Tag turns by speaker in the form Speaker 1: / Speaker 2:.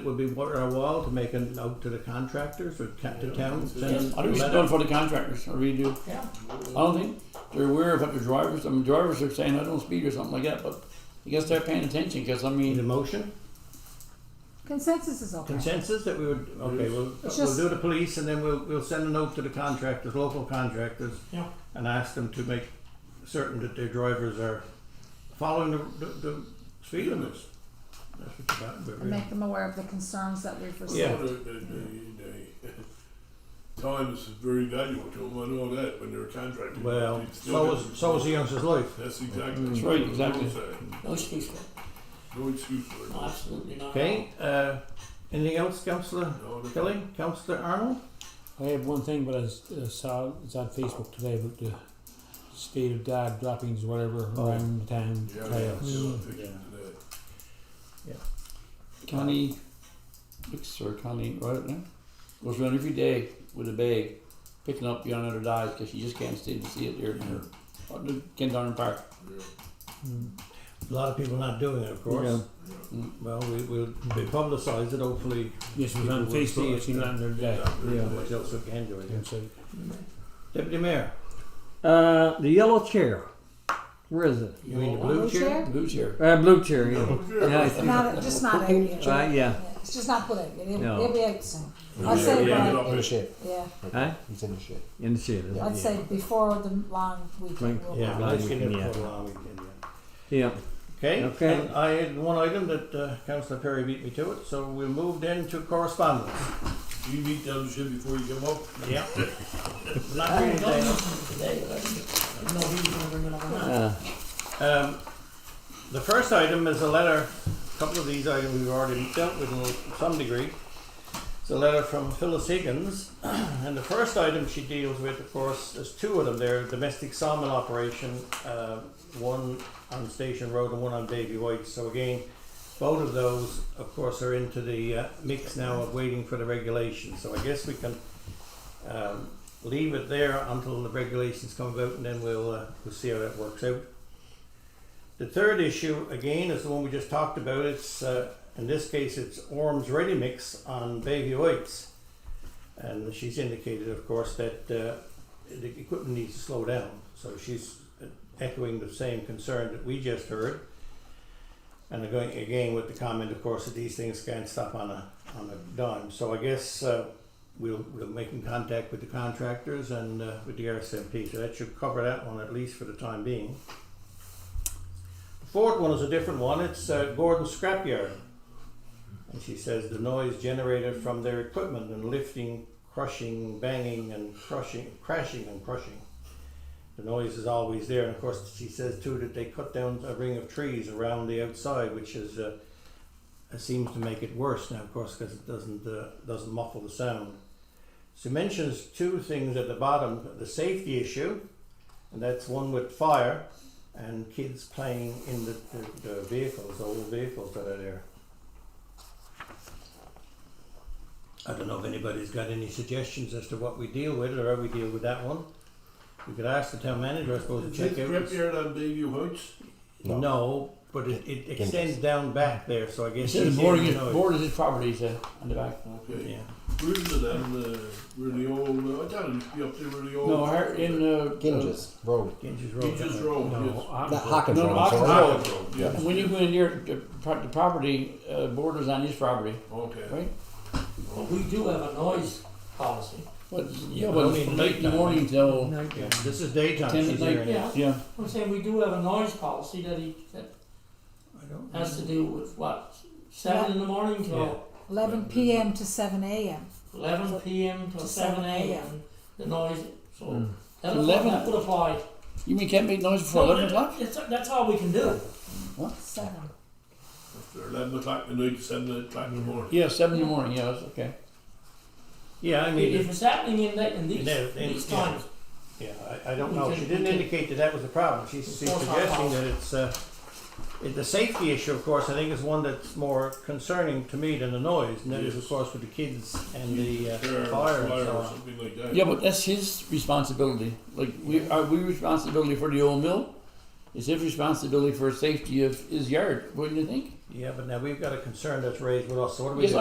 Speaker 1: It would be worth our while to make a note to the contractors or ca- to town. send
Speaker 2: I think we
Speaker 1: a
Speaker 2: should
Speaker 1: letter.
Speaker 2: do it for the contractors. I really do.
Speaker 1: Yeah.
Speaker 2: I don't think they're aware of what the drivers. I mean, drivers are saying I don't speed or something like that, but I guess they're paying attention because I
Speaker 1: Need a
Speaker 2: mean,
Speaker 1: motion,
Speaker 3: Consensus is okay.
Speaker 1: consensus that we would, okay, we'll,
Speaker 3: It's
Speaker 1: we'll
Speaker 3: just-
Speaker 1: do the police and then we'll, we'll send a note to the contractors, local contractors.
Speaker 4: Yeah.
Speaker 1: And ask them to make certain that their drivers are following the, the, the speed limits. That's what it's about, but
Speaker 3: And
Speaker 1: really.
Speaker 3: make them aware of the concerns that we've received.
Speaker 1: Yeah.
Speaker 4: The, the, the, the time is very valuable to them. I know that when they're contracting.
Speaker 1: Well,
Speaker 4: They still
Speaker 1: so
Speaker 4: get-
Speaker 1: was, so was the youngster's life.
Speaker 4: That's exactly.
Speaker 2: That's right, exactly.
Speaker 4: No excuse
Speaker 5: No excuse for it.
Speaker 4: for- No excuse for it.
Speaker 5: No, absolutely not.
Speaker 1: Okay, uh, anything else, councillor
Speaker 4: No, they-
Speaker 1: Kelly, councillor Arnold?
Speaker 6: I have one thing, but I s- uh, saw it's on Facebook today about the state of dog droppings, whatever,
Speaker 1: Oh.
Speaker 6: around the town
Speaker 4: Yeah, they have
Speaker 6: trails.
Speaker 4: to take it to that.
Speaker 2: county, looks or county, right now, goes around every day with a bag, picking up young other dies because you just can't stand to see it there.
Speaker 4: Yeah.
Speaker 2: Up to Ken Darn Park.
Speaker 4: Yeah.
Speaker 1: A lot of people not doing it, of course.
Speaker 4: Yeah.
Speaker 1: Well, we, we'll we publicise it, hopefully,
Speaker 6: Yes, it was
Speaker 1: People
Speaker 6: on
Speaker 1: will see
Speaker 6: Facebook,
Speaker 1: it,
Speaker 6: I've seen that in their day.
Speaker 1: everybody else who can do it.
Speaker 6: And so-
Speaker 1: Deputy Mayor,
Speaker 7: Uh, the yellow chair. Where is it?
Speaker 1: you mean the
Speaker 3: Blue
Speaker 1: blue chair?
Speaker 3: chair?
Speaker 2: Oh, Blue chair.
Speaker 7: Uh, blue chair. Yeah.
Speaker 4: Yeah.
Speaker 7: yeah.
Speaker 3: It's not, just not opiate.
Speaker 7: Uh, yeah.
Speaker 3: It's just not good opiate. It'll,
Speaker 7: No.
Speaker 3: it'll be out soon. I'd
Speaker 4: Yeah,
Speaker 3: say,
Speaker 4: yeah,
Speaker 3: by-
Speaker 4: get up
Speaker 8: In the
Speaker 4: there.
Speaker 8: shed.
Speaker 3: yeah,
Speaker 7: Huh?
Speaker 8: He's in the shed.
Speaker 7: In the shed. isn't
Speaker 3: I'd
Speaker 7: it?
Speaker 3: say before the long weekend.
Speaker 7: Right.
Speaker 3: we'll
Speaker 1: Yeah,
Speaker 3: have it.
Speaker 1: nice to
Speaker 7: Yeah.
Speaker 1: get for a long weekend, yeah.
Speaker 7: Yeah.
Speaker 1: Okay,
Speaker 7: Okay.
Speaker 1: and I had one item that uh, councillor Perry beat me to it, so we moved into correspondence.
Speaker 4: You meet down the shed before you come up.
Speaker 1: Yeah. Not really, Dana.
Speaker 5: Today, I didn't know he was gonna bring it up or not.
Speaker 7: Uh,
Speaker 1: Um, the first item is a letter, a couple of these items we've already dealt with in some degree. It's a letter from Phyllis Higgins, and the first item she deals with, of course, there's two of them there, domestic salmon operation, uh, one on Station Road and one on Davy White, so again, both of those, of course, are into the uh, mix now of waiting for the regulation, so I guess we can um, leave it there until the regulations come about, and then we'll, uh, we'll see how that works out. The third issue, again, is the one we just talked about. It's, uh, in this case, it's Orm's Ready Mix on Baby Whites. And she's indicated, of course, that uh, the equipment needs to slow down. So she's echoing the same concern that we just heard. And going again with the comment, of course, that these things can't stop on a on a dime. So I guess uh, we'll we'll make in contact with the contractors and uh, with the RSMP. So that should cover that one at least for the time being. The fourth one is a different one. It's uh, Gordon Scrapyard. And she says the noise generated from their equipment and lifting, crushing, banging, and crushing, crashing and crushing. The noise is always there. And of course, she says too that they cut down a ring of trees around the outside, which is uh, it seems to make it worse now, of course, because it doesn't uh, doesn't muffle the sound. She mentions two things at the bottom: the safety issue, and that's one with fire and kids playing in the, the, the vehicles, the old vehicles that are there. I don't know if anybody's got any suggestions as to what we deal with or how we deal with that one. We could ask the town manager, I suppose,
Speaker 4: Is
Speaker 1: to
Speaker 4: it
Speaker 1: check out.
Speaker 4: scrapyard on Bayview Heights?
Speaker 8: No.
Speaker 1: No, but it, it extends down back there, so I
Speaker 2: He
Speaker 1: guess.
Speaker 2: said the
Speaker 1: he's
Speaker 2: board
Speaker 1: hearing
Speaker 2: is,
Speaker 1: noise.
Speaker 2: board is his property, he said, on the back.
Speaker 4: Okay.
Speaker 1: Yeah,
Speaker 4: Where is it on the, where uh, the old, uh, I thought it used to be up there where the old.
Speaker 2: No, her- in, uh.
Speaker 8: Ginges. Road.
Speaker 1: Ginger's Road.
Speaker 4: Ginger's Road,
Speaker 1: No.
Speaker 4: yes.
Speaker 6: I'm-
Speaker 8: Not Hawkins
Speaker 2: No,
Speaker 8: Road.
Speaker 2: Hawkins
Speaker 8: sorry.
Speaker 2: Road.
Speaker 4: Road, yeah.
Speaker 2: uh, When you go in there, the, pro- the property uh, borders on his property,
Speaker 4: Okay.
Speaker 2: right?
Speaker 5: But we do have a noise policy.
Speaker 2: But yeah,
Speaker 1: but
Speaker 2: but
Speaker 1: only
Speaker 2: it's from
Speaker 1: late
Speaker 2: late in the
Speaker 1: night.
Speaker 2: morning till
Speaker 1: Yeah, This is daytime
Speaker 2: ten
Speaker 1: she's
Speaker 2: at night.
Speaker 1: hearing it.
Speaker 5: Yeah,
Speaker 2: Yeah,
Speaker 5: I'm saying we do have a noise policy that he, that
Speaker 1: I don't
Speaker 5: has to do with what? Seven in the morning till
Speaker 3: Eleven PM to seven AM.
Speaker 5: eleven PM till
Speaker 3: To
Speaker 5: seven
Speaker 3: 7 a.m..
Speaker 5: AM, the noise,
Speaker 1: Hmm.
Speaker 5: so. That
Speaker 2: 11?
Speaker 5: that would apply.
Speaker 2: you mean can't make noise before eleven o'clock?
Speaker 5: That's, that's all we can do.
Speaker 3: Seven.
Speaker 4: After eleven o'clock at night, seven o'clock in the morning.
Speaker 2: Yeah, seven in the morning. Yeah, that's okay.
Speaker 1: Yeah, I mean,
Speaker 5: If it's happening in that, in these,
Speaker 1: Yeah, in-
Speaker 5: these
Speaker 1: yeah.
Speaker 5: times,
Speaker 1: yeah, I, I don't know.
Speaker 5: We
Speaker 1: She
Speaker 5: can-
Speaker 1: didn't
Speaker 5: we can-
Speaker 1: indicate that that was a problem. She's, she's
Speaker 5: Of course not.
Speaker 1: suggesting that it's, uh, it- the safety issue, of course, I think is one that's more concerning to me than the noise. And that is, of
Speaker 4: Yes.
Speaker 1: course, with the kids and the uh,
Speaker 4: Fire,
Speaker 1: fire and
Speaker 4: fire
Speaker 1: so
Speaker 4: or
Speaker 1: on.
Speaker 4: something like that.
Speaker 2: Yeah, but that's his responsibility. Like we are we responsibility for the old mill. It's his responsibility for safety of his yard, wouldn't you think?
Speaker 1: Yeah, but now we've got a concern that's raised with us, so what do we
Speaker 2: Yes,
Speaker 1: do?